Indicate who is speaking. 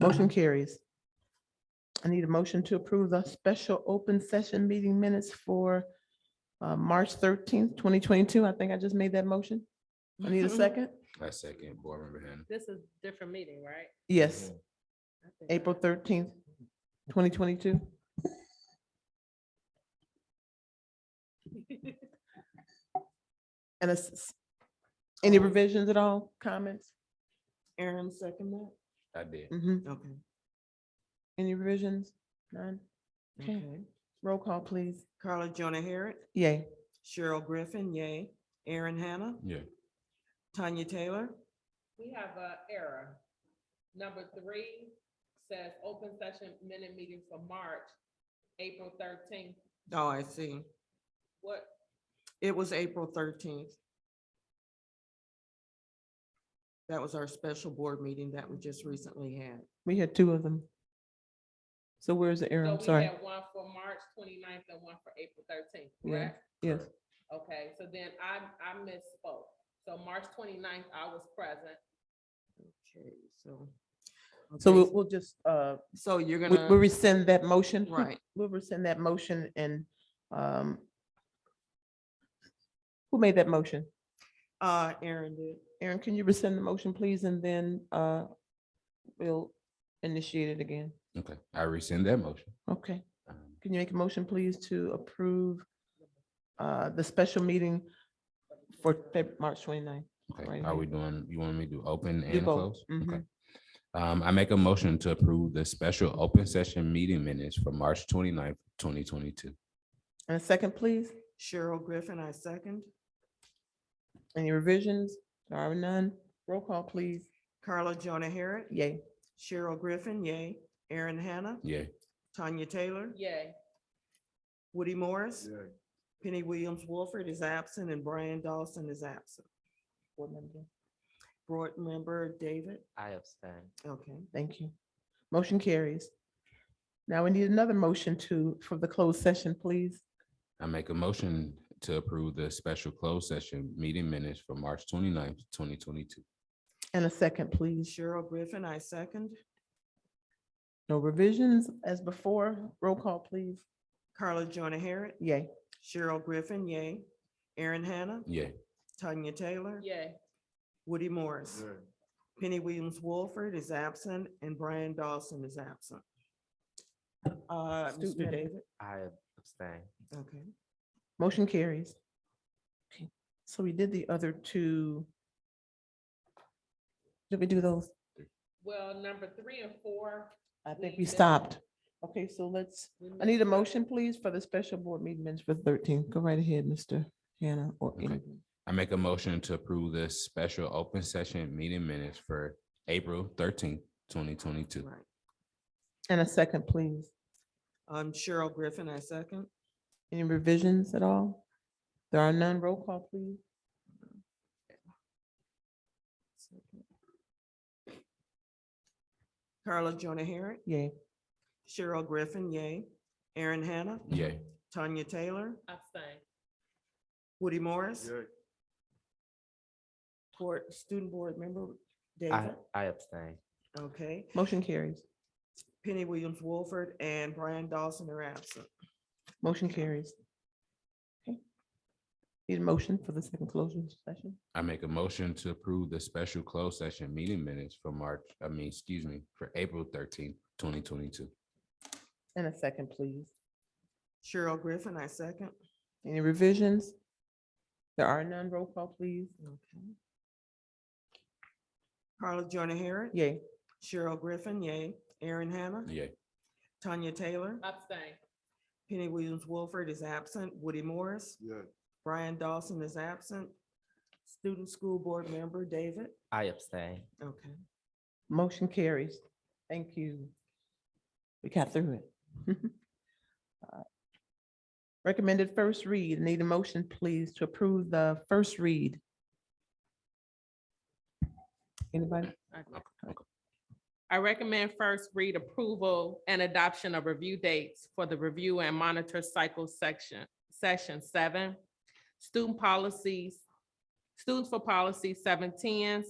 Speaker 1: Motion carries. I need a motion to approve the special open session meeting minutes for uh, March thirteenth, twenty twenty-two. I think I just made that motion. I need a second.
Speaker 2: I second board member Mm-hmm. Hannah.
Speaker 3: This is different meeting, right?
Speaker 1: Yes,
Speaker 3: I think I-
Speaker 1: April thirteenth, twenty twenty-two. And it's, any revisions at all, comments? Aaron, second that?
Speaker 2: I did.
Speaker 1: Mhm.
Speaker 4: Okay,
Speaker 1: Any revisions? None? Okay,
Speaker 4: okay.
Speaker 1: roll call, please.
Speaker 4: Carla Jonah Harret,
Speaker 1: Yay.
Speaker 4: Cheryl Griffin, yay. Aaron Hanna,
Speaker 2: Yeah.
Speaker 4: Tanya Taylor.
Speaker 3: We have a error. Number three says open session minute meeting for March, April thirteenth.
Speaker 4: Oh, I see.
Speaker 3: What,
Speaker 4: It was April thirteenth. That was our special board meeting that we just recently had.
Speaker 1: We had two of them. So where's the error?
Speaker 3: so
Speaker 1: I'm
Speaker 3: we
Speaker 1: sorry.
Speaker 3: had one for March 29th and one for April thirteenth,
Speaker 1: Yeah.
Speaker 3: correct?
Speaker 1: Yes,
Speaker 3: Okay, so then I, I misspoke. So March 29th, I was present.
Speaker 4: Okay, so.
Speaker 1: so
Speaker 4: okay,
Speaker 1: we'll, we'll just, uh,
Speaker 4: So you're
Speaker 1: we- we'll
Speaker 4: gonna,
Speaker 1: rescind that motion.
Speaker 4: right,
Speaker 1: We'll rescind that motion and, um, who made that motion?
Speaker 4: uh, Aaron did.
Speaker 1: Aaron, can you rescind the motion, please? And then, uh, we'll initiate it again.
Speaker 2: Okay, I rescind that motion.
Speaker 1: Okay.
Speaker 2: Um,
Speaker 1: Can you make a motion, please, to approve, uh, the special meeting for Feb- March 29th?
Speaker 2: Okay,
Speaker 1: Right
Speaker 2: are
Speaker 1: here.
Speaker 2: we doing, you want me to do open
Speaker 1: Do
Speaker 2: and
Speaker 1: both, Mm-hmm.
Speaker 2: close? Okay. Um, I make a motion to approve the special open session meeting minutes for March 29th, twenty-two.
Speaker 1: And a second, please?
Speaker 4: Cheryl Griffin, I second.
Speaker 1: Any revisions? There are none. Roll call, please.
Speaker 4: Carla Jonah Harret,
Speaker 1: Yay.
Speaker 4: Cheryl Griffin, yay. Aaron Hanna,
Speaker 2: Yeah,
Speaker 4: Tanya Taylor,
Speaker 3: Yay.
Speaker 4: Woody Morris. Penny Williams Wolford is absent and Brian Dawson is absent.
Speaker 1: Board member,
Speaker 4: Board member David,
Speaker 5: I abstain.
Speaker 4: okay.
Speaker 1: Thank you. Motion carries. Now we need another motion to, for the closed session, please.
Speaker 2: I make a motion to approve the special closed session meeting minutes for March 29th, twenty-two.
Speaker 1: And a second, please.
Speaker 4: Cheryl Griffin, I second.
Speaker 1: No revisions as before. Roll call, please.
Speaker 4: Carla Jonah Harret,
Speaker 1: Yay.
Speaker 4: Cheryl Griffin, yay. Aaron Hanna,
Speaker 2: Yeah,
Speaker 4: Tanya Taylor,
Speaker 3: Yay.
Speaker 4: Woody Morris. Penny Williams Wolford is absent and Brian Dawson is absent. Uh, Mr.
Speaker 1: Student.
Speaker 4: David,
Speaker 5: I abstain.
Speaker 4: okay.
Speaker 1: Motion carries. Okay, So we did the other two. Did we do those?
Speaker 3: Well, number three and four.
Speaker 1: I think
Speaker 3: We
Speaker 1: we
Speaker 3: did.
Speaker 1: stopped. Okay, so let's,
Speaker 3: we
Speaker 1: I need a
Speaker 3: missed one.
Speaker 1: motion, please, for the special board meeting minutes for thirteen. Go right ahead, Mr. Hannah or
Speaker 2: Okay.
Speaker 1: anyone.
Speaker 2: I make a motion to approve the special open session meeting minutes for April thirteenth, twenty twenty-two.
Speaker 4: right.
Speaker 1: And a second, please.
Speaker 4: Um, Cheryl Griffin, I second.
Speaker 1: Any revisions at all? There are none. Roll call, please.
Speaker 4: Carla Jonah Harret,
Speaker 1: Yay.
Speaker 4: Cheryl Griffin, yay. Aaron Hanna,
Speaker 2: Yeah,
Speaker 4: Tanya Taylor,
Speaker 3: Abstain.
Speaker 4: Woody Morris. Board, student board member
Speaker 5: I,
Speaker 4: David,
Speaker 5: I abstain.
Speaker 4: okay.
Speaker 1: Motion carries.
Speaker 4: Penny Williams Wolford and Brian Dawson are absent.
Speaker 1: Motion carries. Okay. Need a motion for the second closing session?
Speaker 2: I make a motion to approve the special closed session meeting minutes for March, I mean, excuse me, for April thirteenth, twenty twenty-two.
Speaker 1: And a second, please.
Speaker 4: Cheryl Griffin, I second.
Speaker 1: Any revisions? There are none. Roll call, please.
Speaker 4: Okay. Carla Jonah Harret.
Speaker 1: Yay.
Speaker 4: Cheryl Griffin, yay. Aaron Hanna.
Speaker 2: Yeah,
Speaker 4: Tanya Taylor.
Speaker 3: Abstain.
Speaker 4: Penny Williams Wolford is absent. Woody Morris. Brian Dawson is absent. Student School Board Member David,
Speaker 5: I abstain.
Speaker 4: okay.
Speaker 1: Motion carries. Thank you. We got through it. Uh, Recommended first read. Need a motion, please, to approve the first read. Anybody?
Speaker 3: I recommend first read approval and adoption of review dates for the review and monitor cycle section, section seven. Student policies, students for policy seven ten,